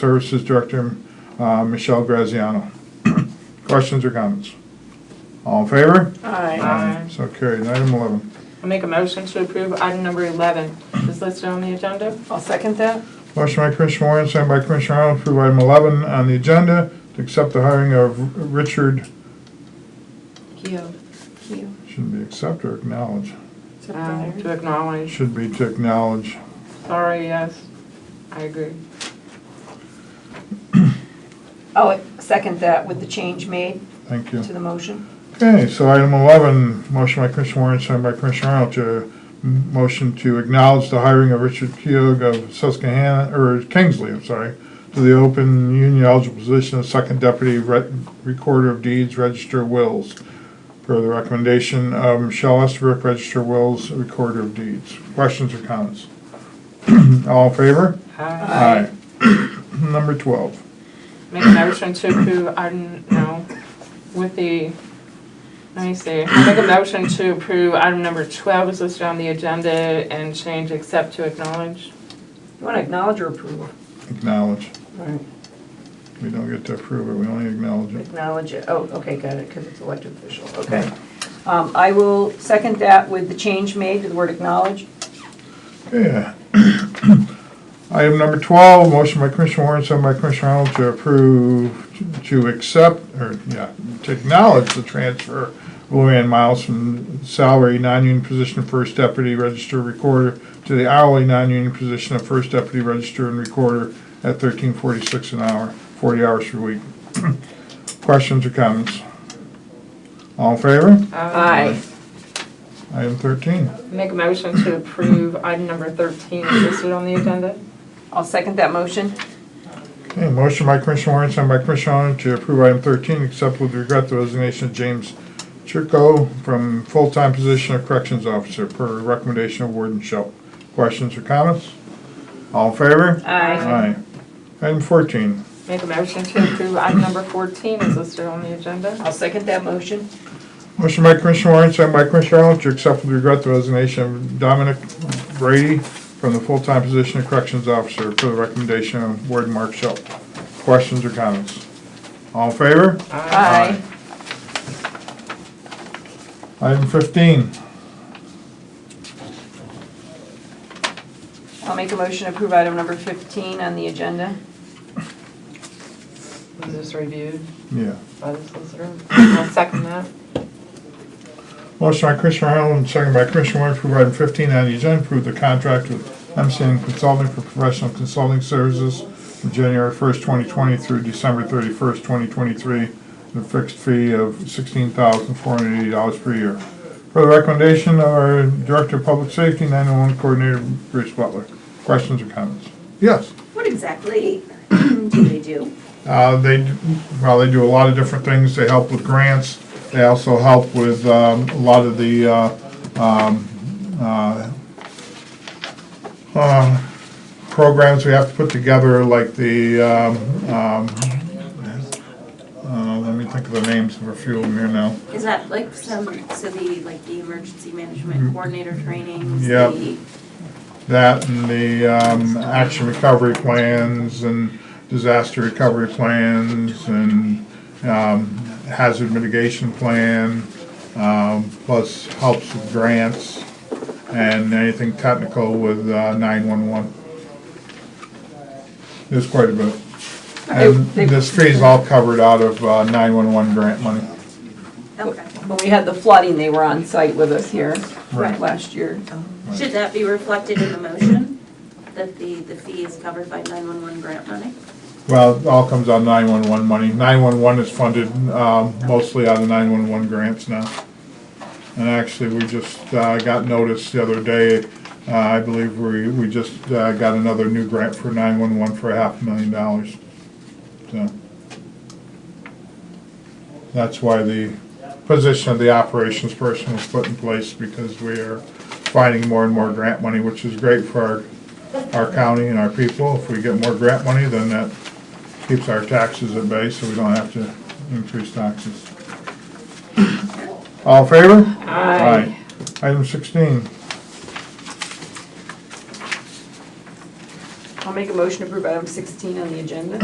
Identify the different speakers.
Speaker 1: Services Director, uh, Michelle Graziano. Questions or comments? All in favor?
Speaker 2: Aye.
Speaker 1: So carried. Item 11.
Speaker 2: I'll make a motion to approve item number 11 is listed on the agenda.
Speaker 3: I'll second that.
Speaker 1: Motion by Commissioner Warren, second by Commissioner Arnold, to approve item 11 on the agenda, to accept the hiring of Richard,
Speaker 2: Keo.
Speaker 1: shouldn't be accept or acknowledge,
Speaker 3: Except
Speaker 2: Uh,
Speaker 3: for
Speaker 2: To
Speaker 3: there.
Speaker 2: acknowledge.
Speaker 1: should be to acknowledge.
Speaker 2: Sorry, yes. I agree.
Speaker 3: I'll Oh, second that with the change made
Speaker 1: Thank you.
Speaker 3: to the motion.
Speaker 1: Okay, so item 11, motion by Commissioner Warren, signed by Commissioner Arnold, to, m- motion to acknowledge the hiring of Richard Keogh of Susquehanna, or Kingsley, I'm sorry, to the open union eligible position of Second Deputy Re- Recorder of Deeds, Register of Wills, per the recommendation of Michelle Estabrook, Register of Wills, Recorder of Deeds. Questions or comments? All in favor?
Speaker 2: Aye.
Speaker 1: Aye. Number 12.
Speaker 2: Uh, Make a motion to approve item, no, with the, let me see. I'll Make a motion to approve item number 12 is listed on the agenda and change accept to acknowledge.
Speaker 3: You want to acknowledge or approve?
Speaker 1: Acknowledge.
Speaker 3: Right.
Speaker 1: We don't get to approve it, we only acknowledge it.
Speaker 3: Acknowledge it. Oh, okay, got it, because it's elected official, okay. Um, I will second that with the change made to the word acknowledge.
Speaker 1: Yeah. Item number 12, motion by Commissioner Warren, second by Commissioner Arnold to approve, to accept, or, yeah, to acknowledge the transfer of Luann Miles from salary non-union position of First Deputy Register Recorder to the hourly non-union position of First Deputy Register and Recorder at 1346 an hour, 40 hours per week. Questions or comments? All in favor?
Speaker 2: Aye.
Speaker 1: Item 13.
Speaker 2: Make a motion to approve item number 13 is listed on the agenda.
Speaker 3: I'll second that motion.
Speaker 1: Okay, motion by Commissioner Warren, second by Commissioner Arnold to approve item thirteen, accept with regret the resignation of James Chirko from full-time position of corrections officer per recommendation of Warden Schell. Questions or comments? All in favor?
Speaker 3: Aye.
Speaker 1: Item fourteen,
Speaker 2: Make a motion to approve item number 14 is listed on the agenda.
Speaker 3: I'll second that motion.
Speaker 1: motion by Commissioner Warren, second by Commissioner Arnold to accept with regret the resignation of Dominic Brady from the full-time position of corrections officer per the recommendation of Warden Mark Schell. Questions or comments? All in favor?
Speaker 3: Aye.
Speaker 1: Item fifteen.
Speaker 3: I'll make a motion to approve item number 15 on the agenda.
Speaker 2: Was this reviewed
Speaker 1: Yeah.
Speaker 2: by the solicitor? I'll second that.
Speaker 1: Motion by Commissioner Arnold, and second by Commissioner Warren, approve item fifteen on the agenda, approve the contract with MCN Consulting for professional consulting services from January first, twenty twenty through December thirty-first, twenty twenty-three, at a fixed fee of sixteen thousand four hundred eighty dollars per year. For the recommendation of our Director of Public Safety, nine-one-one Coordinator Bruce Butler. Questions or comments? Yes.
Speaker 4: What exactly do they do?
Speaker 1: Uh, They, d- well, they do a lot of different things. They help with grants. They also help with um, a lot of the, uh, um, uh, uh, programs we have to put together, like the, um, um, uh, let me think of the names of a few of them here now.
Speaker 4: Is that like some, so the, like the emergency management coordinator trainings?
Speaker 1: Yep.
Speaker 4: the-
Speaker 1: That and the um, action recovery plans and disaster recovery plans and um, hazard mitigation plan, um, plus helps with grants and anything technical with uh, 911. There's quite a bit. And
Speaker 3: They- they-
Speaker 1: this fee's all covered out of uh, 911 grant money.
Speaker 4: Okay.
Speaker 3: When we had the flooding, they were on site with us here
Speaker 1: Right.
Speaker 3: last year.
Speaker 4: Should that be reflected in the motion, that the, the fee is covered by 911 grant money?
Speaker 1: Well, it all comes out of 911 money. 911 is funded um, mostly out of 911 grants now. And actually, we just uh, got notice the other day, uh, I believe we, we just uh, got another new grant for 911 for a half a million dollars. So That's why the position of the operations person was put in place, because we are finding more and more grant money, which is great for our, our county and our people. If we get more grant money, then that keeps our taxes at bay, so we don't have to increase taxes. All in favor?
Speaker 2: Aye.
Speaker 1: Item sixteen,
Speaker 3: I'll I'll make a motion to approve item 16 on the agenda.